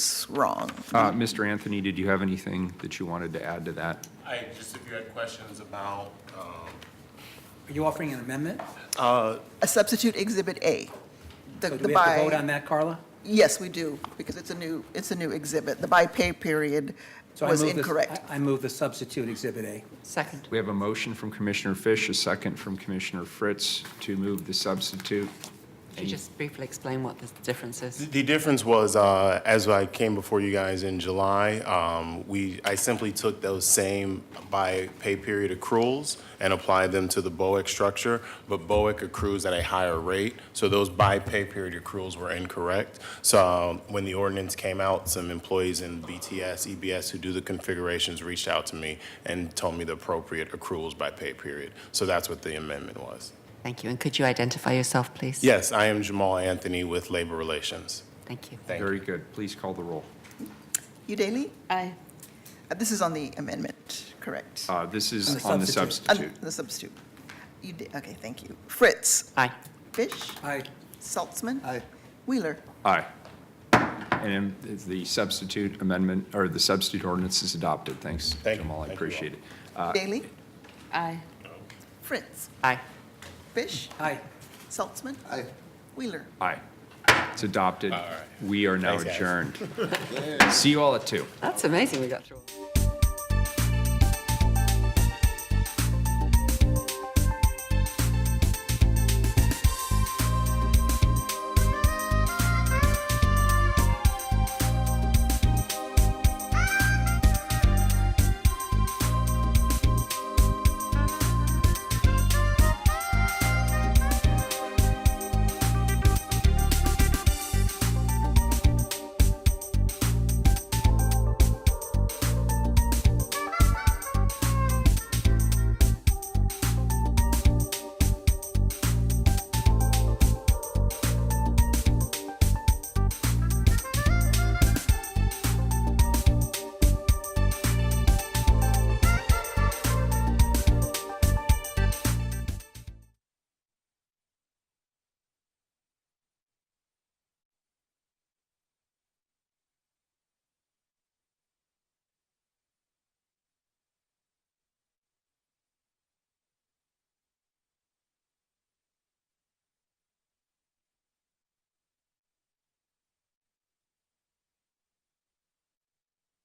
wrong. Uh, Mr. Anthony, did you have anything that you wanted to add to that? I, just if you had questions about, um, Are you offering an Uh, amendment? A substitute Exhibit A. The So do the we have to by- vote on that, Carla? Yes, we do, because it's a new, it's a new exhibit. The by pay period So I was move this- incorrect. I I move the substitute Exhibit A. Second. We have a motion from Commissioner Fish, a second from Commissioner Fritz to move the substitute. Could you just briefly explain what the difference is? The difference was, uh, as I came before you guys in July, um, we, I simply took those same by pay period accruals and applied them to the BOEC structure, but BOEC accrues at a higher rate, so those by pay period accruals were incorrect. So uh, when the ordinance came out, some employees in BTS, EBS E who do the configurations reached out to me and told me the appropriate accruals by pay period. So that's what the amendment was. Thank you. And could you identify yourself, please? Yes, I am Jamal Anthony with Labor Relations. Thank you. Thank you. Very good. Please call the roll. Udaley? Aye. Uh, This is on the amendment, correct? Uh, This On is the on the substitute. Uh, substitute. The substitute. Uda- Okay, thank you. Fritz? Aye. Fish? Aye. Saltzman? Aye. Wheeler? Aye. And then the substitute amendment, or the substitute ordinance is adopted. Thanks, Thank you. Jamal, I Thank you all. appreciate it. Daley? Aye. Fritz? Aye. Fish? Aye. Saltzman? Aye. Wheeler? Aye. It's adopted. We are now Thanks, guys. adjourned. See you all at two. That's amazing we got through all that.